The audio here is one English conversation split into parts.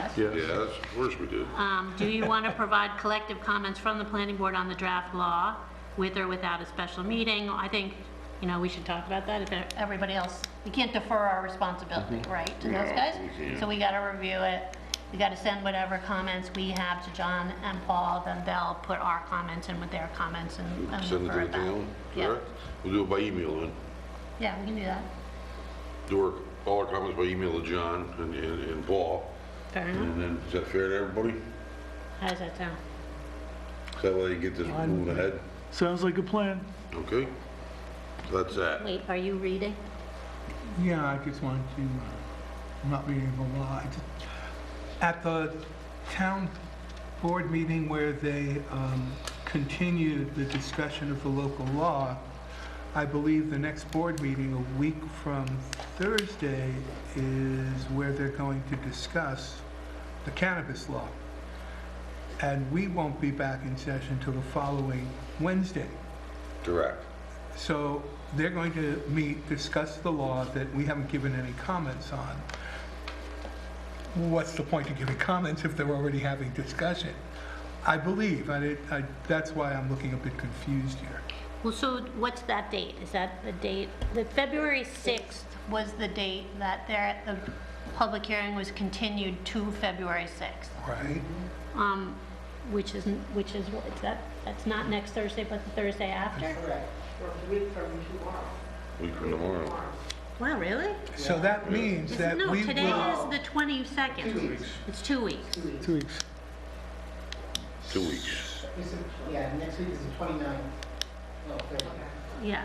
Yes. Yeah, that's, of course we did. Um, Do you want to provide collective comments from the planning board on the draft law with or without a special meeting? I think, you know, we should talk about that if e-, everybody else, we can't defer our responsibility, Mm-hmm. right, to those No, guys? we can't. So we got to review it. We got to send whatever comments we have to John and Paul, then they'll put our comments in with their comments and and Send it refer to the back. town, Yeah. correct? We'll do it by email then. Yeah, we can do that. Do our, all our comments by email to John and, and and Paul. Fair enough. And then, is that fair to everybody? How does that sound? Is that way you get this moving ahead? Sounds like a plan. Okay? So that's that. Wait, are you reading? Yeah, I just wanted to, uh, I'm not reading the law. I just- At the town board meeting where they um, continued the discussion of the local law, I believe the next board meeting, a week from Thursday, is where they're going to discuss the cannabis law. And we won't be back in session till the following Wednesday. Correct. So they're going to meet, discuss the law that we haven't given any comments on. What's the point of giving comments if they're already having discussion? I believe, I, did- I, that's why I'm looking a bit confused here. Well, so what's that date? Is that the date, the February 6th was the date that there, the public hearing was continued to February 6th, Right. um, which isn't, which is, what- is that, that's not next Thursday, but the Thursday after? Correct, for a week from tomorrow. Week from tomorrow. Wow, really? So that means This- that No, we today will. is the 22nd. It's two weeks. Two weeks. Two weeks. It's a- Yeah, next week is the 29th of February. Yeah,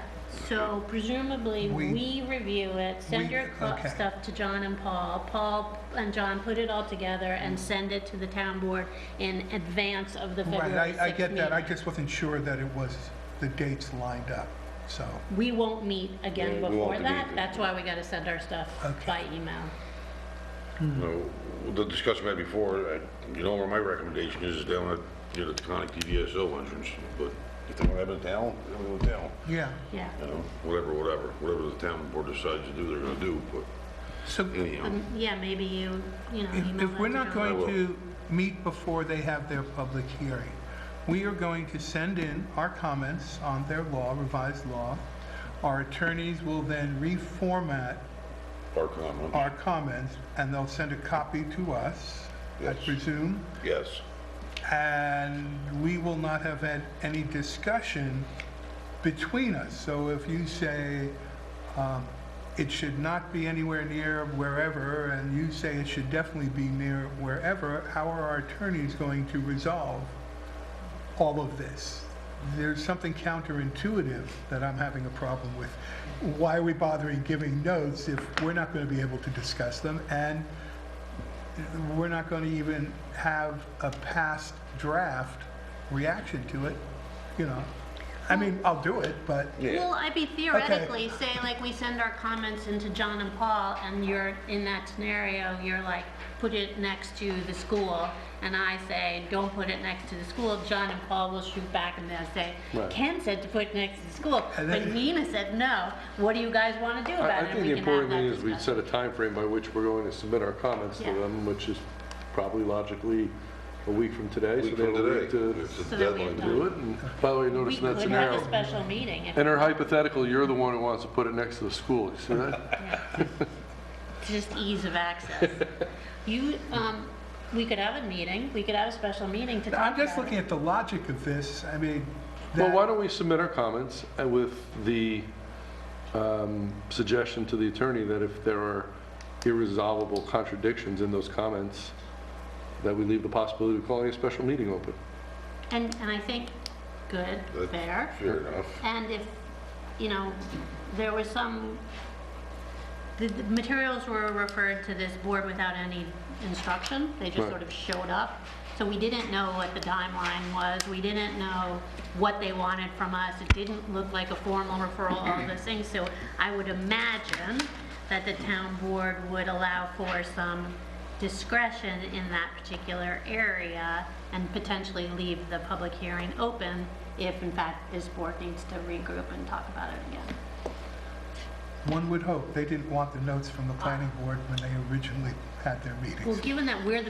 so presumably, We- we review it, send we- your cl- okay. stuff to John and Paul. Paul and John put it all together and send it to the town board in advance of the Right, February 6th I, I get that, I meeting. just wasn't sure that it was, the dates lined up, so, We won't meet again Yeah, we won't before meet that, again. that's why we gotta send our stuff Okay. by email. Mm. No, the discussion we had before, I- you know where my recommendation is, is down at, you know, the Conic DVSO entrance, but if they want to have it down, they have it down. yeah. Yeah, You know, whatever, whatever, whatever the town board decides to do, they're gonna do, but So anyhow, Um, yeah, maybe you, you know, If email if that we're to not John. I going will. to meet before they have their public hearing, we are going to send in our comments on their law, revised law. Our attorneys will then reformat our comment, our comments, and they'll send a copy to us, I Yes. presume. yes. And we will not have had any discussion between us. So if you say, um, it should not be anywhere near wherever, and you say it should definitely be near wherever, how are our attorneys going to resolve all of this? There's something counterintuitive that I'm having a problem with. Why are we bothering giving notes if we're not going to be able to discuss them? And we're not going to even have a past draft reaction to it, you know? I mean, I'll do it, but, Well, I'd be theoretically, say like we send our comments into John and Paul and you're in that scenario, you're like, put it next to the school. And I say, don't put it next to the school. John and Paul will shoot back and they'll say, Ken said to put it next to the school, And but then- Nina said no. What do you guys want to do I about it? I And think we the can have important thing that is we discussion. set a time frame by which we're going to submit our comments to Yeah. them, which is probably logically a week from today. Week so they from have a today, week to it's a So that we deadline. have Do it, and by the way, notice We in that could have a scenario, special meeting. if- in our hypothetical, you're the one who wants to put it next to the school, you see that? It's just ease of access. You, um, we could have a meeting, we could have a special meeting to talk about I'm it. just looking at the logic of this, I mean, Well, why that, don't we submit our comments uh, with the um, suggestion to the attorney that if there are irresolvable contradictions in those comments, that we leave the possibility of calling a special meeting open. And, and I think, good, That's fair. Fair enough. And if, you know, there was some, the the materials were referred to this board without any instruction. They just Right. sort of showed up. So we didn't know what the timeline was. We didn't know what they wanted from us. It didn't look like a formal referral, all those things. So I would imagine that the town board would allow for some discretion in that particular area and potentially leave the public hearing open if in fact this board needs to regroup and talk about it again. one would hope, they didn't want the notes from the planning board when they originally had their meetings. Well, given that we're the